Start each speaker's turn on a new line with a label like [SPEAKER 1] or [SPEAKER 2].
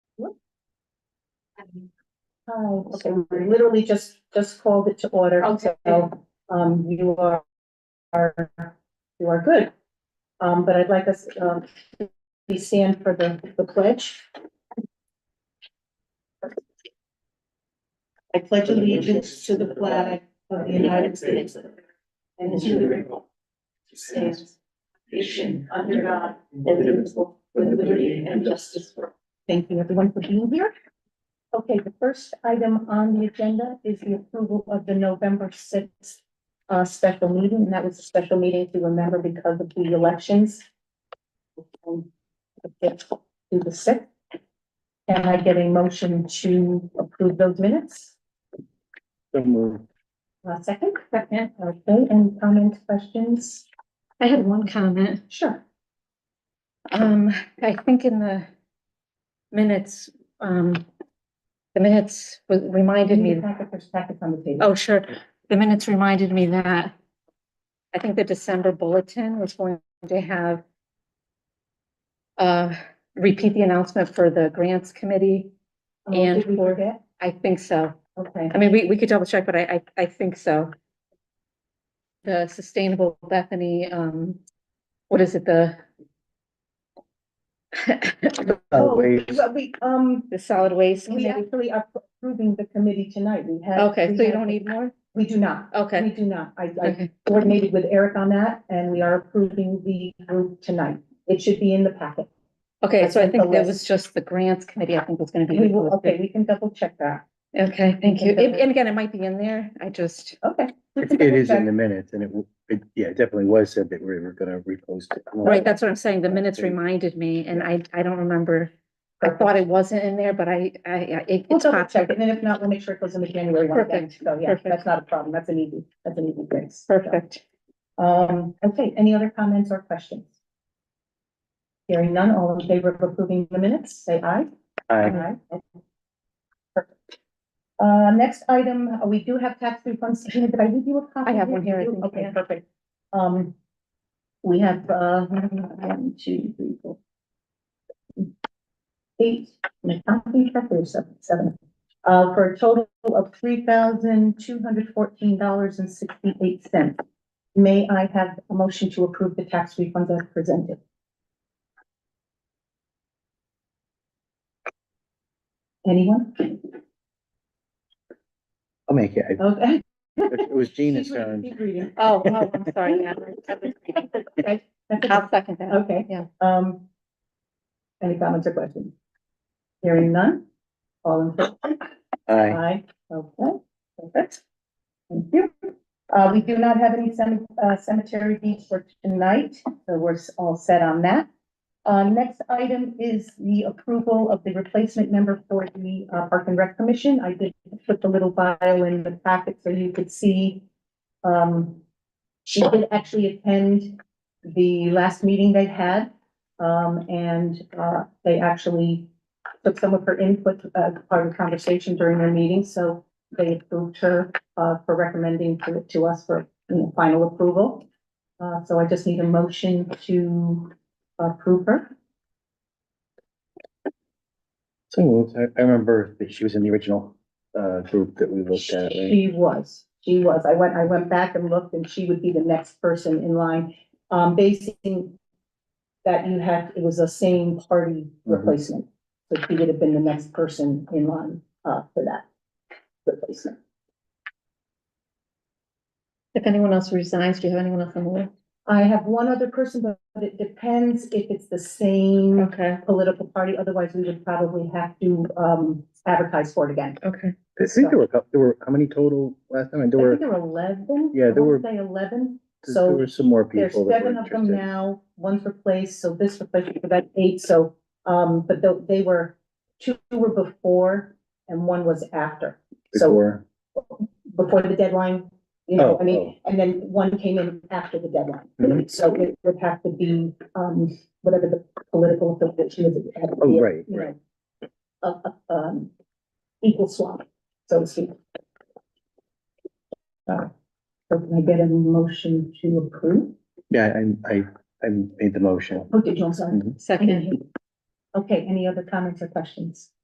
[SPEAKER 1] Hi, so we literally just, just called it to order,
[SPEAKER 2] Okay.
[SPEAKER 1] so, um, you are, are, you are good. Um, but I'd like us, um, to stand for the, the pledge. I pledge allegiance to the flag of the United States and to the republic that stands nation under God, indivisible, with liberty and justice for. all. Thank you, everyone, for being here. Okay, the first item on the agenda is the approval of the November sixth uh, special meeting, and that was a special meeting to remember because of the elections. Um, okay, To the sixth. Can I get a motion to approve those minutes?
[SPEAKER 3] So moved.
[SPEAKER 1] Uh, second? Second. Okay, any comments, questions?
[SPEAKER 2] I had one comment.
[SPEAKER 1] Sure.
[SPEAKER 2] Um, I think in the minutes, um, the minutes re- reminded
[SPEAKER 1] Didn't
[SPEAKER 2] me,
[SPEAKER 1] you packet, there's packets on the table.
[SPEAKER 2] oh, sure, the minutes reminded me that I think the December bulletin was going to have uh, repeat the announcement for the grants committee.
[SPEAKER 1] Oh,
[SPEAKER 2] and
[SPEAKER 1] did we
[SPEAKER 2] for-
[SPEAKER 1] forget?
[SPEAKER 2] I think so.
[SPEAKER 1] Okay,
[SPEAKER 2] I mean, we, we could double check, but I, I, I think so. The Sustainable Bethany, um, what is it, the?
[SPEAKER 3] Uh,
[SPEAKER 1] Oh,
[SPEAKER 3] waived.
[SPEAKER 1] well, we, um,
[SPEAKER 2] The solid waste
[SPEAKER 1] we
[SPEAKER 2] committee?
[SPEAKER 1] actually are approving the committee tonight. We had.
[SPEAKER 2] Okay,
[SPEAKER 1] we
[SPEAKER 2] so you
[SPEAKER 1] had-
[SPEAKER 2] don't need more?
[SPEAKER 1] We do not. We
[SPEAKER 2] Okay,
[SPEAKER 1] do not. I, I
[SPEAKER 2] okay,
[SPEAKER 1] coordinated with Eric on that and we are approving the group tonight. It should be in the packet.
[SPEAKER 2] okay, so I
[SPEAKER 1] sent the
[SPEAKER 2] think that
[SPEAKER 1] list.
[SPEAKER 2] was just the grants committee, I think was gonna be.
[SPEAKER 1] We will, okay,
[SPEAKER 2] listed.
[SPEAKER 1] we can double check that.
[SPEAKER 2] Okay, thank you.
[SPEAKER 1] Okay.
[SPEAKER 2] And and again, it might be in there, I just,
[SPEAKER 1] Okay. we
[SPEAKER 3] It
[SPEAKER 1] can
[SPEAKER 3] it
[SPEAKER 1] double
[SPEAKER 3] is in
[SPEAKER 1] check.
[SPEAKER 3] the minutes and it, w- it, yeah, it definitely was said that we were gonna repost it.
[SPEAKER 2] right, that's what I'm saying, the minutes
[SPEAKER 3] Okay.
[SPEAKER 2] reminded me, and I, I don't remember. I
[SPEAKER 1] Perfect.
[SPEAKER 2] thought it wasn't in there, but I, I, I- it-
[SPEAKER 1] We'll
[SPEAKER 2] it's
[SPEAKER 1] double
[SPEAKER 2] popular.
[SPEAKER 1] check it. And if not, we'll make sure it goes in the January one again.
[SPEAKER 2] Perfect,
[SPEAKER 1] So yeah,
[SPEAKER 2] perfect.
[SPEAKER 1] that's not a problem. That's an easy, that's an easy fix. So,
[SPEAKER 2] Perfect.
[SPEAKER 1] Um, okay, any other comments or questions? Hearing none, all in favor of approving the minutes, say aye.
[SPEAKER 3] I,
[SPEAKER 1] Alright. Perfect. Uh, next item, uh, we do have tax refunds. Gina, Did I leave you a copy?
[SPEAKER 2] I have one here, I think,
[SPEAKER 1] Okay,
[SPEAKER 2] yeah.
[SPEAKER 1] perfect. Um, we have, uh, one, two, three, four. Eight, no, I think that's there, seven, seven, uh, for a total of three thousand two hundred fourteen dollars and sixty-eight cents. May I have a motion to approve the tax refunds as presented? Anyone?
[SPEAKER 3] I'll make it. I-
[SPEAKER 1] Okay.
[SPEAKER 3] It was Gina's
[SPEAKER 1] Keep reading,
[SPEAKER 3] turn.
[SPEAKER 1] keep reading.
[SPEAKER 2] Oh, oh, I'm sorry. yeah.
[SPEAKER 1] Okay, that's it.
[SPEAKER 2] I'll second that.
[SPEAKER 1] Okay.
[SPEAKER 2] Yeah.
[SPEAKER 1] Um. Any comments or questions? Hearing none, all in favor?
[SPEAKER 3] Aye.
[SPEAKER 1] Aye. Okay, perfect. Thank you. Uh, we do not have any cem- uh, cemetery deeds for tonight, so we're s- all set on that. Uh, next item is the approval of the replacement member for the uh, Park and Rec Commission. I did put the little bio in the packet so you could see. Um, she did actually attend the last meeting they had. Um, and, uh, they actually took some of her input, uh, part of the conversation during their meeting, so they approved her, uh, for recommending to, to us for, you know, final approval. Uh, so I just need a motion to approve her.
[SPEAKER 3] So moved. I, I remember that she was in the original, uh, group that we looked at, right?
[SPEAKER 1] She was, she was. I went, I went back and looked and she would be the next person in line. Um, basing that you had, it was a same party replacement. So she would have been the next person in line, uh, for that replacement.
[SPEAKER 2] If anyone else resigns, do you have anyone else on the list?
[SPEAKER 1] I have one other person, but it depends if it's the same
[SPEAKER 2] Okay,
[SPEAKER 1] political party, otherwise we would probably have to, um, advertise for it again.
[SPEAKER 2] okay.
[SPEAKER 3] I think there were, a cou- there were, how many total last time? And
[SPEAKER 1] I
[SPEAKER 3] there were,
[SPEAKER 1] think there were eleven.
[SPEAKER 3] Yeah,
[SPEAKER 1] I
[SPEAKER 3] there
[SPEAKER 1] wanna
[SPEAKER 3] were-
[SPEAKER 1] Say eleven,
[SPEAKER 3] there
[SPEAKER 1] so
[SPEAKER 3] were some more
[SPEAKER 1] there's
[SPEAKER 3] people. that were
[SPEAKER 1] seven of them
[SPEAKER 3] interested.
[SPEAKER 1] now, one's replaced, so this replaced, so that's eight, so, um, but tho- they were, two were before and one was after. So
[SPEAKER 3] Before,
[SPEAKER 1] before the deadline, you know,
[SPEAKER 3] Oh,
[SPEAKER 1] I mean, and then one came in after the deadline.
[SPEAKER 3] Mhm.
[SPEAKER 1] So it would have to be, um, whatever the political affiliation is. it had to
[SPEAKER 3] oh,
[SPEAKER 1] be,
[SPEAKER 3] right,
[SPEAKER 1] you
[SPEAKER 3] right.
[SPEAKER 1] know, A, a, um, equal swap, so to speak. Uh, So can I get a motion to approve?
[SPEAKER 3] Yeah, I, I, I made the motion.
[SPEAKER 1] Oh, did you, I'm sorry.
[SPEAKER 3] Mhm.
[SPEAKER 1] I didn't
[SPEAKER 2] Second,
[SPEAKER 1] hear you. Okay, any other comments or questions?